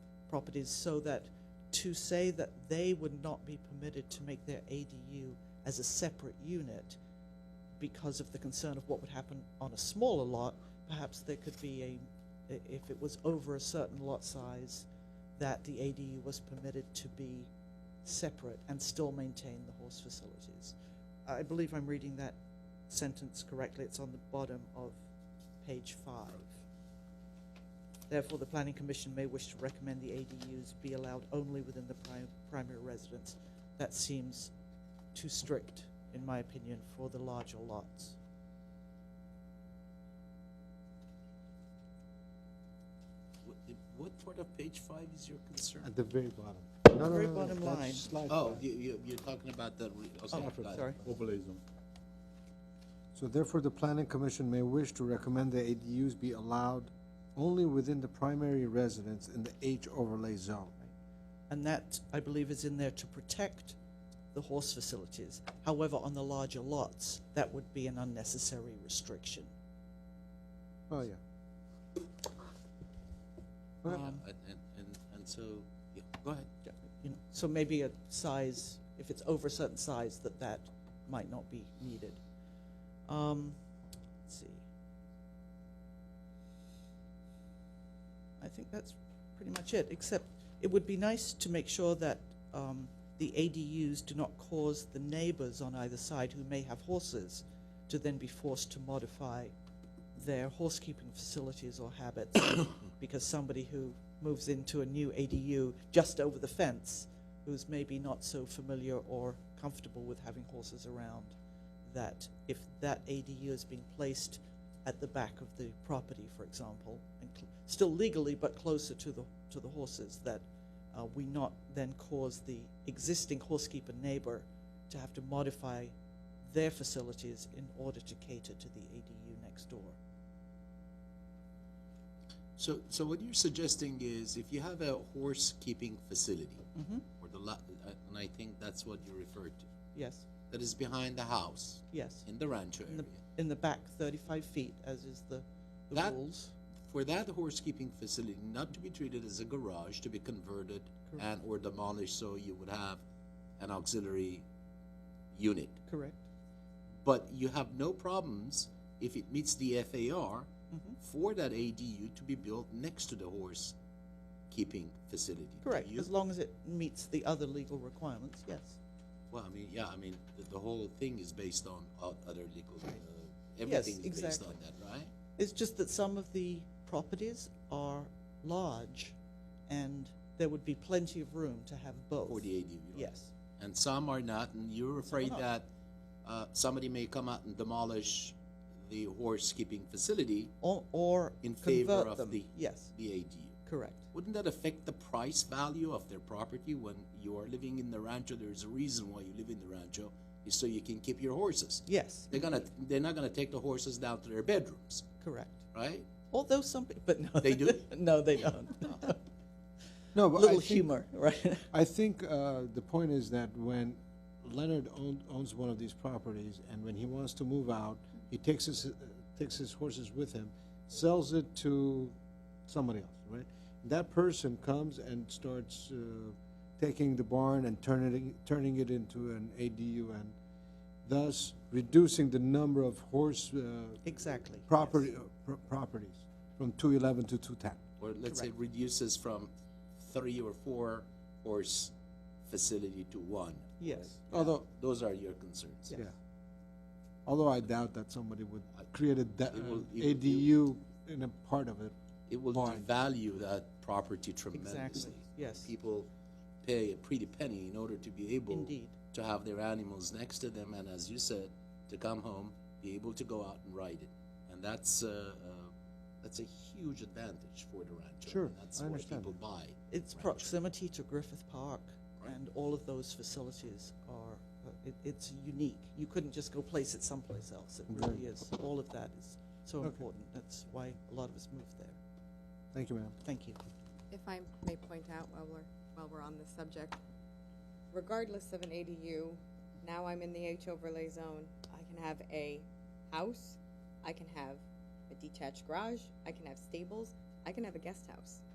properties so that to say that they would not be permitted to make their ADU as a separate unit because of the concern of what would happen on a smaller lot, perhaps there could be a, i- if it was over a certain lot size, that the ADU was permitted to be separate and still maintain the horse facilities. I believe I'm reading that sentence correctly. It's on the bottom of page five. Therefore, the planning commission may wish to recommend the ADUs be allowed only within the prim- primary residence. That seems too strict, in my opinion, for the larger lots. What- What part of page five is your concern? At the very bottom. No, no, Very no, no, bottom that's line. slide Oh, five. you, you, you're talking about the. re- oh, Oh, got it. sorry. overlay zone. So therefore, the planning commission may wish to recommend that ADUs be allowed only within the primary residence in the H overlay zone. And that, I believe, is in there to protect the horse facilities. However, on the larger lots, that would be an unnecessary restriction. Oh, yeah. Yeah, Well, And, and, and- and so, yeah, go ahead. You know, So maybe a size, if it's over a certain size, that that might not be needed. Um, let's see. I think that's pretty much it, except it would be nice to make sure that um, the ADUs do not cause the neighbors on either side who may have horses to then be forced to modify their horse keeping facilities or habits because somebody who moves into a new ADU just over the fence who's maybe not so familiar or comfortable with having horses around that if that ADU is being placed at the back of the property, for example, and cl- still legally but closer to the to the horses, that uh, we not then cause the existing horsekeeper neighbor to have to modify their facilities in order to cater to the ADU next door. So, so what you're suggesting is if you have a horse keeping facility, Mm-hmm. or the lot, uh, and I think that's what you referred to, Yes, that is behind the house yes. in the rancho In area. the in the back, thirty-five feet, as is the the That- rules. For that horse keeping facility not to be treated as a garage, to be converted and or demolished, so you would have an auxiliary unit. Correct. but you have no problems if it meets the FAR Mm-hmm. for that ADU to be built next to the horse keeping facility. Do Correct. you- As long as it meets the other legal requirements, yes. Well, I mean, yeah, I mean, the, the whole thing is based on o- other legal, uh, Yes, everything is based exactly. on that, right? It's just that some of the properties are large, and there would be plenty of room to have both. For the ADU. you know. Yes. And some are not, and you're afraid not. that, uh, somebody may come out and demolish the horse keeping facility, Or, or In favor convert of them. the- Yes, the ADU. correct. Wouldn't that affect the price value of their property when you are living in the rancho? There's a reason why you live in the rancho, is so you can keep your horses. Yes, They're gonna, they're not gonna take the horses down to their bedrooms, correct. right? Although some, pe- but no. They do? No, they don't. No, but I Little think- humor, right? I think uh, the point is that when Leonard owned, owns one of these properties, and when he wants to move out, he takes his uh, takes his horses with him, sells it to somebody else, right? That person comes and starts uh, taking the barn and turning it, turning it into an ADU, and thus reducing the number of horse uh, Exactly. property uh, pro- properties from two eleven to two ten. Or let's say reduces from three or four horse facility to one. Yes. Although Those are your concerns. Yeah. Although I doubt that somebody would create a da- It will- it- ADU in a part of it. It will Barn. devalue that property tremendously. Exactly, yes. People pay a pretty penny in order to be able Indeed. to have their animals next to them, and as you said, to come home, be able to go out and ride it, and that's uh, uh, that's a huge advantage for the rancher. Sure, and that's I why understand people that. buy. Its rancho. proximity to Griffith Park and all of those facilities are, uh, it, it's unique. You couldn't just go place it someplace else. It really is. All of that is so important. That's why a lot of us moved there. Thank you, ma'am. Thank you. If I may point out while we're, while we're on this subject, regardless of an ADU, now I'm in the H overlay zone, I can have a house, I can have a detached garage, I can have stables, I can have a guest house.